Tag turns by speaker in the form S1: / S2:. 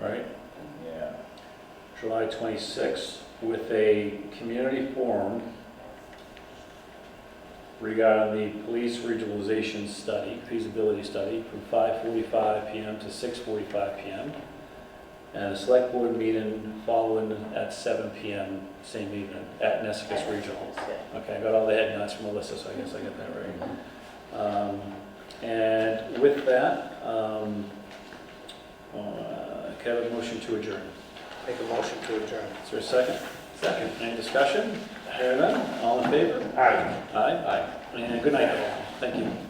S1: right?
S2: Yeah.
S1: July 26th with a community forum regarding the police regionalization study, feasibility study, from 5:45 PM to 6:45 PM. And a select board meeting following at 7 PM, same evening, at Nessus Regional. Okay, I got all the head nods from Melissa, so I guess I got that right. Um, And with that, um, uh, can I have a motion to adjourn?
S3: Make a motion to adjourn.
S1: Is there a second? Second. Any discussion? Hearing none, all in favor?
S3: Aye.
S1: Aye. Aye. And good night, all. Thank you.